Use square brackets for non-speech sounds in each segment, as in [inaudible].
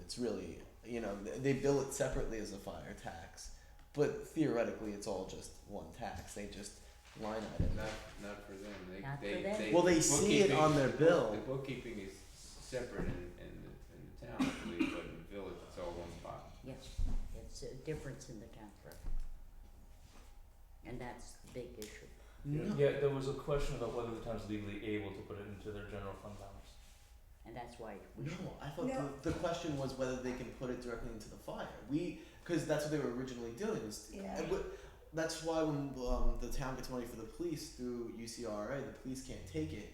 It's really you know th- they bill it separately as a fire tax, but theoretically it's all just one tax. They just line item. Not, not for them, they, Not they, for them. they. Well, they see it bookkeeping- on their bill. The bookkeeping is separate in, in, the- in the town, I believe, but in the village, it's all one pot. Yes, it's a difference in the town clerk. And that's the big issue. Yeah, No. yeah, there was a question about whether the town's legally able to put it into their general fund balance. And that's why we No, should, I thought No. the, the question was whether they can put it directly into the fire. We, because that's what they were originally doing. Is Yeah. and what- that's why when um, the town gets money for the police through UCRA, the police can't take it.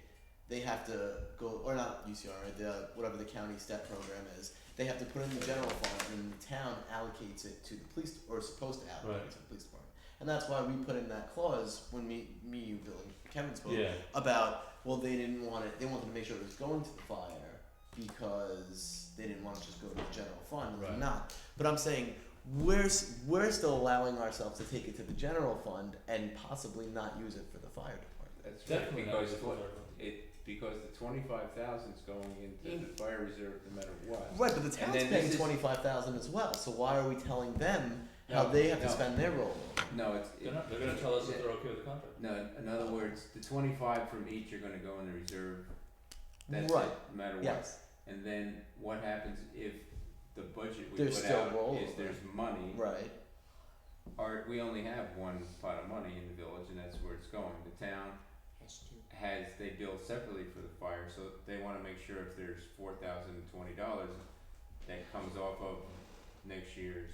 They have to go, or not UCRA, the whatever the county step program is. They have to put it in the general fund, and the town allocates it to the police, or is supposed to allocate Right. it to the police department. And that's why we put in that clause when me, me, you, Bill, and Kevin spoke Yeah, about well they didn't want it they wanted to make sure it was going to the fire because they didn't want to just go to the general fund and Right. not but i'm saying we're s- we're still allowing ourselves to take it to the general fund and possibly not use it for the fire department That's right, definitely not because the twen- fire. it, because the twenty-five thousand's going into the fire reserve no matter what. right but the And town's then paying this is- 25000 as well so why are we telling them how No, they have to no. spend their role No, it's. They're it- not, they're gonna tell us if Yeah. they're okay with the contract. No, in other words, the twenty-five from each are gonna go in the reserve, that's it, right no matter what. yes And then what happens if the budget we There's put still out is rollover. there's money, right or we only have one pot of money in the village and that's where it's going. The town has to, has, they bill separately for the fire, so they wanna make sure if there's four thousand and twenty dollars that comes off of next year's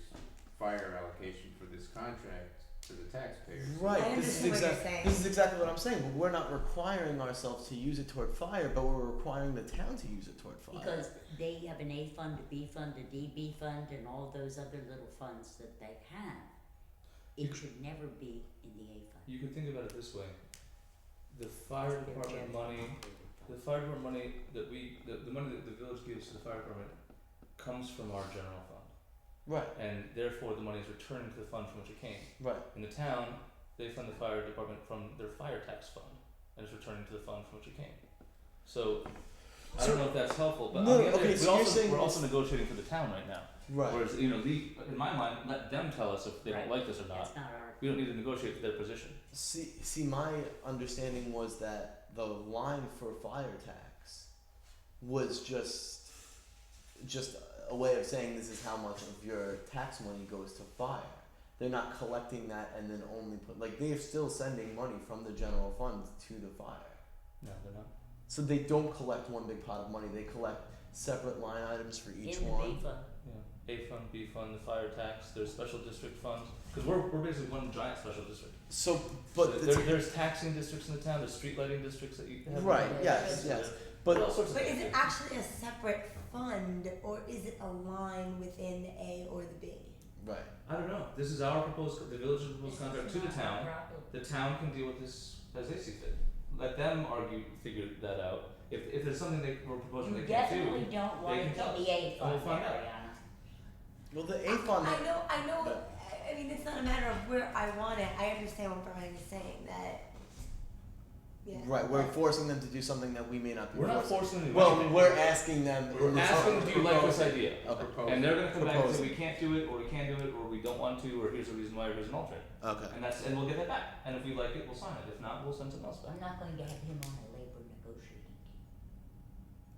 fire allocation for this contract to the taxpayers. Right. I This is understand what you're exactly saying. this is exactly what I'm saying. We're not requiring ourselves to use it toward fire, but we're requiring the town to use it toward fire. because they have an A fund, a B fund, a DB fund, and all those other little funds that they have. It should never be in the A fund. You can think about it this way. The fire They're department very money, complicated the funds. fire department money that we, the, the money that the village gives to the fire department comes from our general fund. right, And therefore, the money is returned to the fund from which it came. right. In the town, they fund the fire department from their fire tax fund, and it's returned to the fund from which it came. So, I So- don't know if that's helpful, but No, on the other, okay, we so you're also, saying we're this- also negotiating for the town right now. Right. Whereas, you know, le- in my mind, let them tell us if they Right. don't like this or not. That's not our, We don't need to negotiate for their position. See, see, my understanding was that the line for fire tax was just, just a way of saying this is how much of your tax money goes to fire. They're not collecting that and then only put like they are still sending money from the general fund to the fire. No, they're not. So they don't collect one big pot of money. They collect separate line items for in the each B one. fund, Yeah. A fund, B fund, the fire tax, there's special district funds. Because we're, we're basically one giant special district. So, So but the there, t- there's taxing districts in the town, there's street lighting districts that you have. right, Yeah. yes, So yes, there- all but sorts of But things. is it actually a separate fund or is it a line within the A or the B? right. I don't know. This is our proposed, the village's proposed contract to the town. The town can deal with this as they see fit. Let them argue, figure that out. If, if there's something they were proposing you they can't do, definitely don't want it they can in tell us, the A and we'll fund, find out. Ariana. Well, the A fund. I know, I know, Yeah. I- I mean, it's not a matter of where I want it, I understand what Brian is saying, that, yeah. Right, we're forcing them to do something that we may not be. we're not forcing. forcing them. to do Well, anything. we're asking them. We're asking, do you like this Okay. idea? And they're gonna come back and say, we can't do it, or we can do it, or we don't want to, or here's a reason why, or here's an alternate. Okay. And that's, and we'll get that back. And if we like it, we'll sign it. If not, we'll send something else back. I'm not going to have him on a labor negotiating team.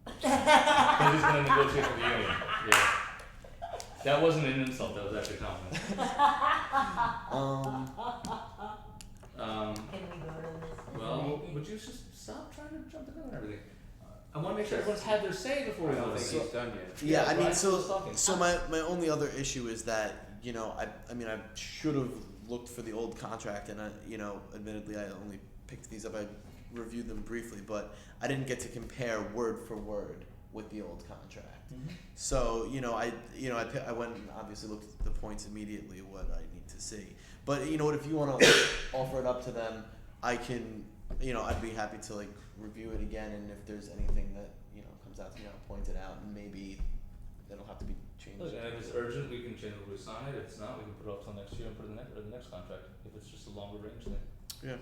Cause he's gonna negotiate with the union, [laughs] yeah. That wasn't an insult, that was actually a compliment. Um. Um, Can we go to this? well, would you just stop trying to jump the gun and everything? Uh, I wanna make sure everyone's had their say before we I don't vote. think he's done yet. Yeah, I mean, Brian's so still talking. so my my only other issue is that you know I I mean I should have looked for the old contract and I you know admittedly I only picked these up I reviewed them briefly but I didn't get to compare word for word with the old contract. Mm-hmm. So you know, I you know I, pi- I went and obviously looked at the points immediately what I need to see. But you know what, if you want to [coughs] offer it up to them, I can. You know, I'd be happy to like review it again, and if there's anything that you know comes out to me, I'll point it out, and maybe it'll have to be changed. Look, and if it's urgent, we can generally sign it. If it's not, we can put it off till next year and put it in the next, or the next contract, if it's just a longer range thing.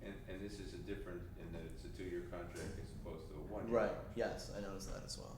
And, and this is a different, in that it's a two-year contract as opposed to a one-year. Right. Yes, I noticed that as well.